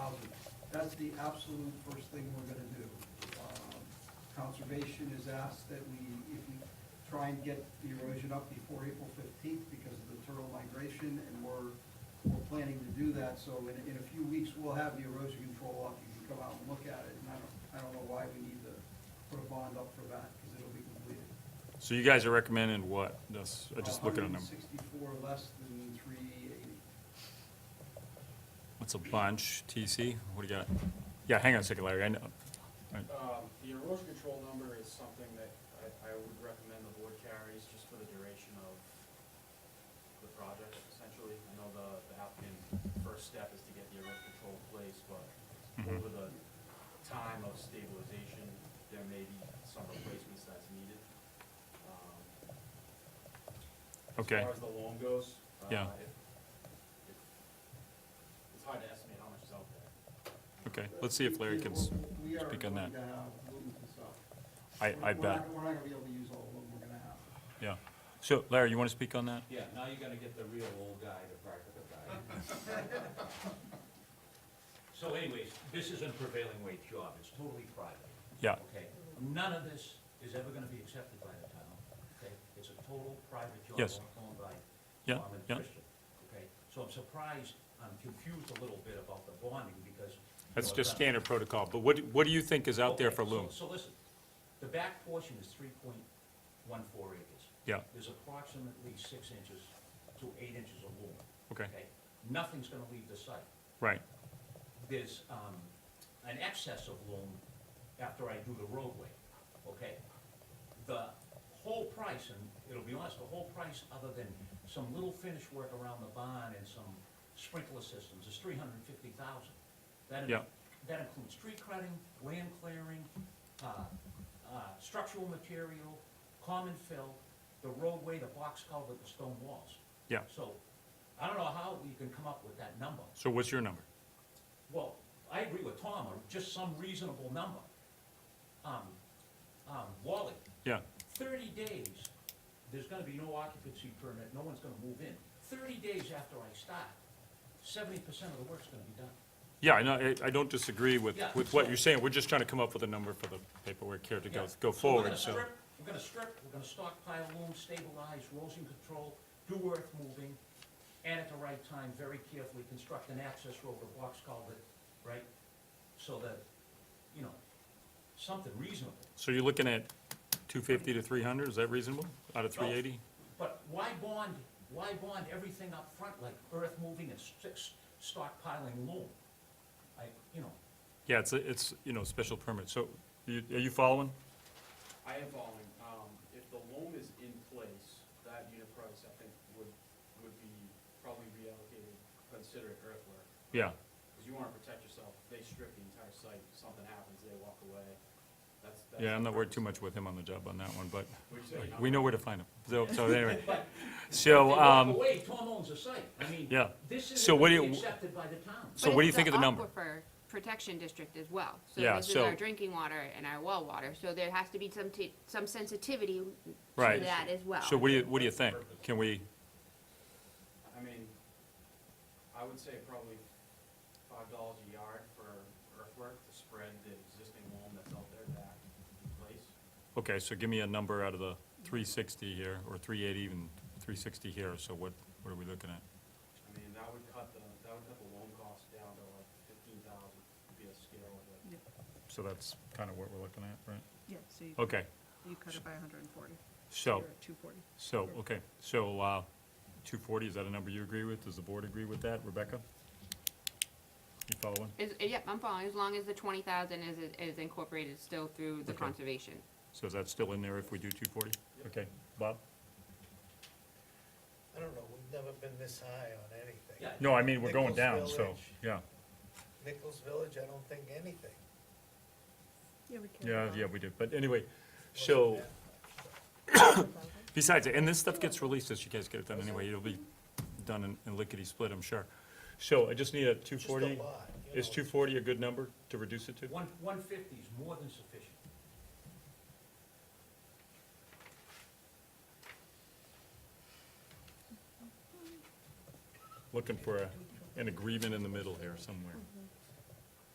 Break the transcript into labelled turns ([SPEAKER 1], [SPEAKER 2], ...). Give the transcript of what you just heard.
[SPEAKER 1] That's the absolute first thing we're gonna do. Um, Conservation has asked that we, if we try and get the erosion up before April fifteenth because of the turtle migration, and we're, we're planning to do that, so in, in a few weeks, we'll have the erosion control up, you can come out and look at it, and I don't, I don't know why we need to put a bond up for that, because it'll be completed.
[SPEAKER 2] So you guys are recommending what? That's, I just look at them.
[SPEAKER 1] Sixty-four less than three eighty.
[SPEAKER 2] What's a bunch, TC? What do you got? Yeah, hang on a second, Larry, I know. Right.
[SPEAKER 3] Um, The erosion control number is something that I, I would recommend the board carries just for the duration of the project, essentially. I know the, the applicant's first step is to get the erosion control in place, but
[SPEAKER 2] Mm-hmm.
[SPEAKER 3] over the time of stabilization, there may be some replacements that's needed. Um,
[SPEAKER 2] Okay,
[SPEAKER 3] As far as the loan goes. uh,
[SPEAKER 2] Yeah.
[SPEAKER 3] if- if- It's hard to estimate how much is out there.
[SPEAKER 2] okay, let's see if Larry can, s-
[SPEAKER 1] We are
[SPEAKER 2] speak
[SPEAKER 1] going
[SPEAKER 2] on that.
[SPEAKER 1] to have Luton stuff.
[SPEAKER 2] I, I
[SPEAKER 1] We're not-
[SPEAKER 2] bet,
[SPEAKER 1] We're not gonna be able to use all of them, we're gonna have.
[SPEAKER 2] yeah. So, Larry, you want to speak on that?
[SPEAKER 4] Yeah, now you're gonna get the real old guy, the practical guy. So anyways, this is a prevailing wage job, it's totally private,
[SPEAKER 2] Yeah,
[SPEAKER 4] okay? None of this is ever gonna be accepted by the town, okay? It's a total private job
[SPEAKER 2] Yes.
[SPEAKER 4] owned by
[SPEAKER 2] Yeah,
[SPEAKER 4] Tom and
[SPEAKER 2] yeah.
[SPEAKER 4] Christian, okay? So I'm surprised, I'm confused a little bit about the bonding because. you
[SPEAKER 2] that's
[SPEAKER 4] know,
[SPEAKER 2] just
[SPEAKER 4] it's not-
[SPEAKER 2] standard protocol, but what, do- what do you think is out there
[SPEAKER 4] Okay,
[SPEAKER 2] for
[SPEAKER 4] so-
[SPEAKER 2] loom?
[SPEAKER 4] So listen, the back portion is three point one four acres.
[SPEAKER 2] Yeah,
[SPEAKER 4] There's approximately six inches to eight inches of loom.
[SPEAKER 2] okay,
[SPEAKER 4] Nothing's gonna leave the site.
[SPEAKER 2] right,
[SPEAKER 4] There's, um, an excess of loom after I do the roadway, okay? The whole price, and it'll be honest, the whole price, other than some little finish work around the barn and some sprinkler systems, is three hundred and fifty thousand. That, in-
[SPEAKER 2] Yeah.
[SPEAKER 4] that includes tree cutting, land clearing, uh, uh, structural material, common fill, the roadway, the box culvert, the stone walls.
[SPEAKER 2] yeah.
[SPEAKER 4] So, I don't know how you can come up with that number.
[SPEAKER 2] So what's your number?
[SPEAKER 4] Well, I agree with Tom, or just some reasonable number. Um, um, Wally,
[SPEAKER 2] Yeah,
[SPEAKER 4] thirty days, there's gonna be no occupancy permit, no one's gonna move in. Thirty days after I start, seventy percent of the work's gonna be done.
[SPEAKER 2] yeah, I know, I- I don't disagree with,
[SPEAKER 4] Yeah,
[SPEAKER 2] with what
[SPEAKER 4] so-
[SPEAKER 2] you're saying. We're just trying to come up with a number for the paperwork here to go,
[SPEAKER 4] Yeah.
[SPEAKER 2] go
[SPEAKER 4] So we're
[SPEAKER 2] forward,
[SPEAKER 4] gonna
[SPEAKER 2] so.
[SPEAKER 4] strip- We're gonna strip, we're gonna stockpile loom, stabilize, erosion control, do earth moving, and at the right time, very carefully construct an access road or box culvert, right? So that, you know, something reasonable.
[SPEAKER 2] So you're looking at two fifty to three hundred, is that reasonable, out of three eighty?
[SPEAKER 4] But why bond, why bond everything up front like earth moving and st- stockpiling loom? I, you know,
[SPEAKER 2] Yeah, it's, a- it's, you know, special permit, so, you- are you following?
[SPEAKER 3] I am following, um, if the loan is in place, that unit price, I think, would, would be probably reallocated, considered earthwork.
[SPEAKER 2] Yeah,
[SPEAKER 3] Because you want to protect yourself, if they strip the entire site, something happens, they walk away, that's. that's
[SPEAKER 2] yeah, I'm
[SPEAKER 3] the
[SPEAKER 2] not worried too
[SPEAKER 3] purpose.
[SPEAKER 2] much with him on the job on that one, but
[SPEAKER 3] Which they-
[SPEAKER 2] we know where to find him, so, so anyway.
[SPEAKER 4] but if they
[SPEAKER 2] So,
[SPEAKER 4] walk
[SPEAKER 2] um,
[SPEAKER 4] away, Tom owns the site. I mean,
[SPEAKER 2] Yeah.
[SPEAKER 4] this
[SPEAKER 2] So
[SPEAKER 4] isn't
[SPEAKER 2] what
[SPEAKER 4] gonna
[SPEAKER 2] do
[SPEAKER 4] be
[SPEAKER 2] you-
[SPEAKER 4] accepted by the town.
[SPEAKER 2] so what do you think of the number?
[SPEAKER 5] But it's an aquifer protection district as well.
[SPEAKER 2] Yeah,
[SPEAKER 5] So this is
[SPEAKER 2] so-
[SPEAKER 5] our drinking water and our well water, so there has to be some, t- some sensitivity to
[SPEAKER 2] Right.
[SPEAKER 5] that as well.
[SPEAKER 2] So what do you, what do you think? Can we,
[SPEAKER 3] I mean, I would say probably five dollars a yard for earthwork to spread the existing loan that's out there back in place.
[SPEAKER 2] okay, so give me a number out of the three sixty here, or three eighty, even three sixty here, so what, what are we looking at?
[SPEAKER 3] I mean, that would cut the, that would cut the loan cost down to like fifteen thousand, would be a scale of it.
[SPEAKER 2] So that's kind of what we're looking at, right?
[SPEAKER 6] Yeah, so you,
[SPEAKER 2] Okay,
[SPEAKER 6] you cut it by hundred and forty.
[SPEAKER 2] so,
[SPEAKER 6] You're at two forty.
[SPEAKER 2] so, okay, so, uh, two forty, is that a number you agree with? Does the board agree with that, Rebecca? You following?
[SPEAKER 5] Is, yep, I'm following, as long as the twenty thousand is, is incorporated still through the
[SPEAKER 2] Okay.
[SPEAKER 5] conservation.
[SPEAKER 2] So is that still in there if we do two forty? Okay, Bob?
[SPEAKER 7] I don't know, we've never been this high on anything.
[SPEAKER 4] Yeah.
[SPEAKER 2] No, I mean, we're going down,
[SPEAKER 7] Nichols
[SPEAKER 2] so,
[SPEAKER 7] Village.
[SPEAKER 2] yeah,
[SPEAKER 7] Nichols Village, I don't think anything.
[SPEAKER 6] Yeah, we can.
[SPEAKER 2] yeah, yeah, we do, but anyway, so, besides, and this stuff gets released, as you guys get it done anyway, it'll be done in, in lickety-split, I'm sure. So I just need a two
[SPEAKER 7] Just a lot.
[SPEAKER 2] forty,
[SPEAKER 7] you
[SPEAKER 2] is
[SPEAKER 7] know,
[SPEAKER 2] two forty a good number to reduce it to?
[SPEAKER 4] One, one fifty is more than sufficient.
[SPEAKER 2] Looking for a, an agreement in the middle here somewhere.